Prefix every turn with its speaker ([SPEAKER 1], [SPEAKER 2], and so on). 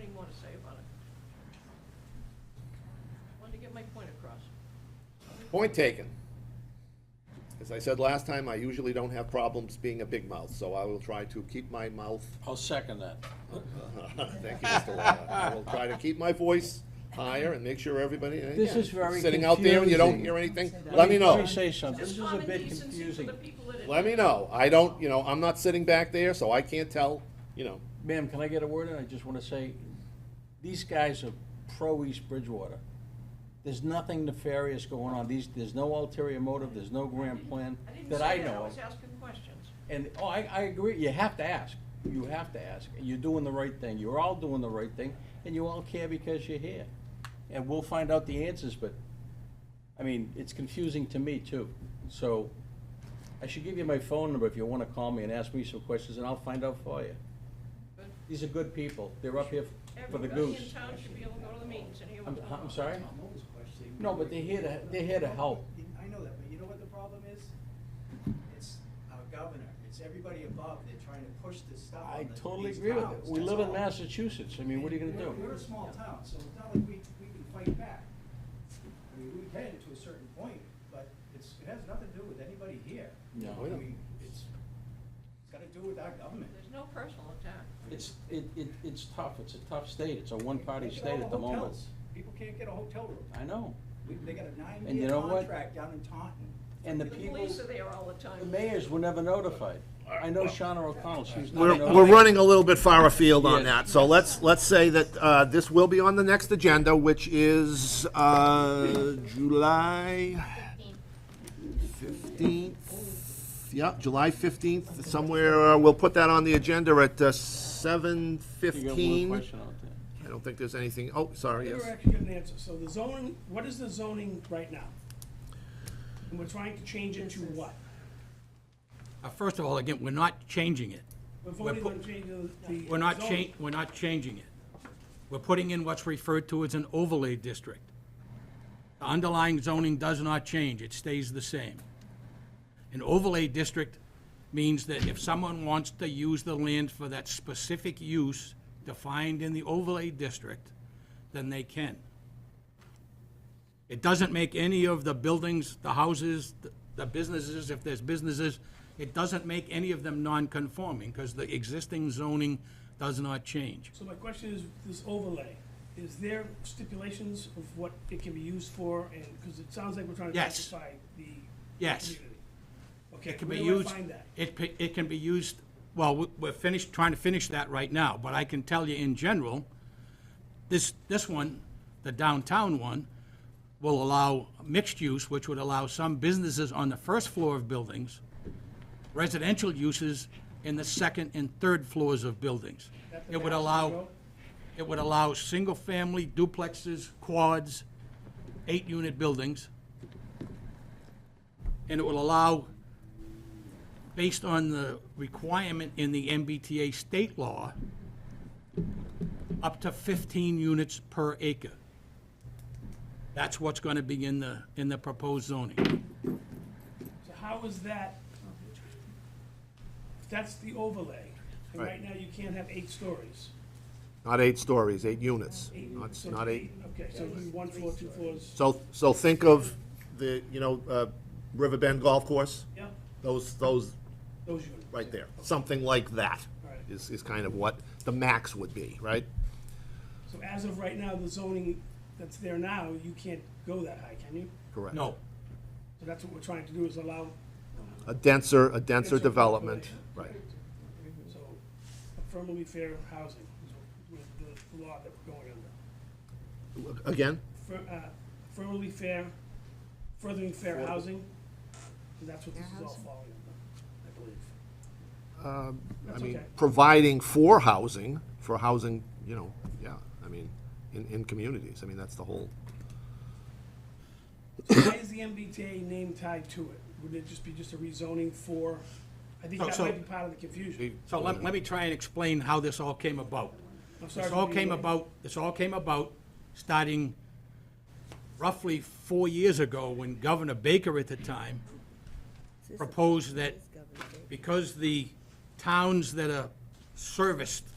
[SPEAKER 1] didn't want to say about it. Wanted to get my point across.
[SPEAKER 2] Point taken. As I said last time, I usually don't have problems being a big mouth, so I will try to keep my mouth,
[SPEAKER 3] I'll second that.
[SPEAKER 2] thank you, Mr. Lawler. I will try to keep my voice higher and make sure everybody, and
[SPEAKER 4] This
[SPEAKER 2] again,
[SPEAKER 4] is very
[SPEAKER 2] Sitting out there and you don't
[SPEAKER 4] confusing.
[SPEAKER 2] hear anything, let me know.
[SPEAKER 3] Let me say something. This
[SPEAKER 1] Just
[SPEAKER 3] is a
[SPEAKER 1] common
[SPEAKER 3] bit
[SPEAKER 1] decency for
[SPEAKER 3] confusing.
[SPEAKER 1] the people that it-
[SPEAKER 2] Let me know. I don't, you know, I'm not sitting back there, so I can't tell, you know.
[SPEAKER 3] Ma'am, can I get a word in? I just want to say, these guys are pro-East Bridgewater. There's nothing nefarious going on. uh, These, there's no ulterior motive, there's no grand plan
[SPEAKER 1] I didn't
[SPEAKER 3] that I
[SPEAKER 1] say that, I
[SPEAKER 3] know
[SPEAKER 1] was
[SPEAKER 3] of.
[SPEAKER 1] asking questions.
[SPEAKER 3] And, oh, I, I agree, you have to ask. You have to ask. You're doing the right thing. You're all doing the right thing, and you all care because you're here. And we'll find out the answers, but, I mean, it's confusing to me too. So, I should give you my phone number if you wanna call me and ask me some questions, and I'll find out for you.
[SPEAKER 1] But
[SPEAKER 3] These are good people. They're up here f- for the
[SPEAKER 1] Everybody in
[SPEAKER 3] goose.
[SPEAKER 1] town should be able to go to the meetings and hear what's
[SPEAKER 3] I'm,
[SPEAKER 1] going on.
[SPEAKER 3] I'm sorry?
[SPEAKER 5] No, but they're here to, they're here to help. I know that, but you know what the problem is? It's our governor, it's everybody above, they're trying to push this stuff
[SPEAKER 3] I
[SPEAKER 5] on the-
[SPEAKER 3] totally
[SPEAKER 5] these
[SPEAKER 3] agree with
[SPEAKER 5] towns,
[SPEAKER 3] it. We
[SPEAKER 5] that's
[SPEAKER 3] live in
[SPEAKER 5] all.
[SPEAKER 3] Massachusetts. I mean, what are you gonna
[SPEAKER 5] We're-
[SPEAKER 3] do?
[SPEAKER 5] We're a small town, so it's not like we, we can fight back. I mean, we can to a certain point, but it's, it has nothing to do with anybody here.
[SPEAKER 3] No.
[SPEAKER 5] I mean, it's, it's gotta do with our government.
[SPEAKER 1] There's no personal attack.
[SPEAKER 3] It's, it, it, it's tough. It's a tough state. It's a one-party
[SPEAKER 5] Look at all
[SPEAKER 3] state at the moment.
[SPEAKER 5] hotels. People can't get a hotel room.
[SPEAKER 3] I know.
[SPEAKER 5] We- They got a
[SPEAKER 3] And you
[SPEAKER 5] nine-year
[SPEAKER 3] know what?
[SPEAKER 5] contract down in Taunton.
[SPEAKER 3] And the
[SPEAKER 1] The
[SPEAKER 3] people,
[SPEAKER 1] police are there all the time.
[SPEAKER 3] the mayors were never notified. I know Shauna O'Connell, she was
[SPEAKER 2] We're,
[SPEAKER 3] not
[SPEAKER 2] we're
[SPEAKER 3] notified.
[SPEAKER 2] running a little bit far afield on
[SPEAKER 3] Yes.
[SPEAKER 2] that, so let's, let's say that, uh, this will be on the next agenda, which is, uh, July fifteenth. Yeah, July fifteenth, somewhere, uh, we'll put that on the agenda at, uh, seven
[SPEAKER 3] You got one
[SPEAKER 2] fifteen.
[SPEAKER 3] question out there.
[SPEAKER 2] I don't think there's anything, oh, sorry,
[SPEAKER 6] Never
[SPEAKER 2] yes.
[SPEAKER 6] actually get an answer. So the zoning, what is the zoning right now? And we're trying to change it to what?
[SPEAKER 7] Uh, First of all, again, we're not changing it.
[SPEAKER 6] We're voting
[SPEAKER 7] pu-
[SPEAKER 6] on changing the.
[SPEAKER 7] We're not
[SPEAKER 6] zoning.
[SPEAKER 7] cha, we're not changing it. We're putting in what's referred to as an overlay district. The underlying zoning does not change, it stays the same. An overlay district means that if someone wants to use the land for that specific use defined in the overlay district, then they can. It doesn't make any of the buildings, the houses, the- the businesses, if there's businesses, it doesn't make any of them non-conforming, because the existing zoning does not change.
[SPEAKER 6] So my question is, this overlay, is there stipulations of what it can be used for? And, because it sounds like we're trying to
[SPEAKER 7] Yes.
[SPEAKER 6] classify the.
[SPEAKER 7] Yes.
[SPEAKER 6] community. Okay,
[SPEAKER 7] It can
[SPEAKER 6] where
[SPEAKER 7] be
[SPEAKER 6] do I
[SPEAKER 7] used,
[SPEAKER 6] find that?
[SPEAKER 7] it, pi- it can be used, well, we- we're finished, trying to finish that right now, but I can tell you in general, this, this one, the downtown one, will allow mixed use, which would allow some businesses on the first floor of buildings, residential uses in the second and third floors of buildings.
[SPEAKER 6] That the
[SPEAKER 7] It would
[SPEAKER 6] Madison
[SPEAKER 7] allow,
[SPEAKER 6] Road?
[SPEAKER 7] it would allow single-family duplexes, quads, eight-unit buildings. And it will allow, based on the requirement in the MBTA state law, up to 15 units per acre. That's what's going to be in the, in the proposed zoning.
[SPEAKER 6] So how is that? If That's the overlay. And
[SPEAKER 2] Right.
[SPEAKER 6] right now you can't have eight stories.
[SPEAKER 2] Not eight stories, eight units,
[SPEAKER 6] Eight.
[SPEAKER 2] not,
[SPEAKER 6] So
[SPEAKER 2] not eight.
[SPEAKER 6] Okay, so it'd be one floor, two floors.
[SPEAKER 2] So, so think of the, you know, uh, Riverbend Golf Course,
[SPEAKER 6] Yeah,
[SPEAKER 2] those, those
[SPEAKER 6] those units.
[SPEAKER 2] right there. Something like that
[SPEAKER 6] Right.
[SPEAKER 2] is, is kind of what the max would be, right?
[SPEAKER 6] So as of right now, the zoning that's there now, you can't go that high, can you?
[SPEAKER 2] Correct.
[SPEAKER 7] No,
[SPEAKER 6] So that's what we're trying to do is allow,
[SPEAKER 2] A denser, a denser
[SPEAKER 6] Denser
[SPEAKER 2] development, right.
[SPEAKER 6] population. so affirmatively fair housing is what- the the law that we're going under.
[SPEAKER 2] Again,
[SPEAKER 6] Fir- uh, Affirmatively fair, furthering fair housing, and that's what this is all falling under, I believe.
[SPEAKER 7] Um,
[SPEAKER 2] I
[SPEAKER 6] That's
[SPEAKER 2] mean,
[SPEAKER 6] okay.
[SPEAKER 2] providing for housing, for housing, you know, yeah, I mean, in, in communities, I mean, that's the whole.
[SPEAKER 6] Why is the MBTA name tied to it? Would it just be just a rezoning for, I think
[SPEAKER 7] So-
[SPEAKER 6] that
[SPEAKER 7] Oh, so-
[SPEAKER 6] might be part of the confusion.
[SPEAKER 7] so let, let me try and explain how this all came about.
[SPEAKER 6] I'm sorry
[SPEAKER 7] This
[SPEAKER 6] for
[SPEAKER 7] all
[SPEAKER 6] being
[SPEAKER 7] came
[SPEAKER 6] late.
[SPEAKER 7] about, this all came about starting roughly four years ago when Governor Baker at the time proposed that because the towns that are serviced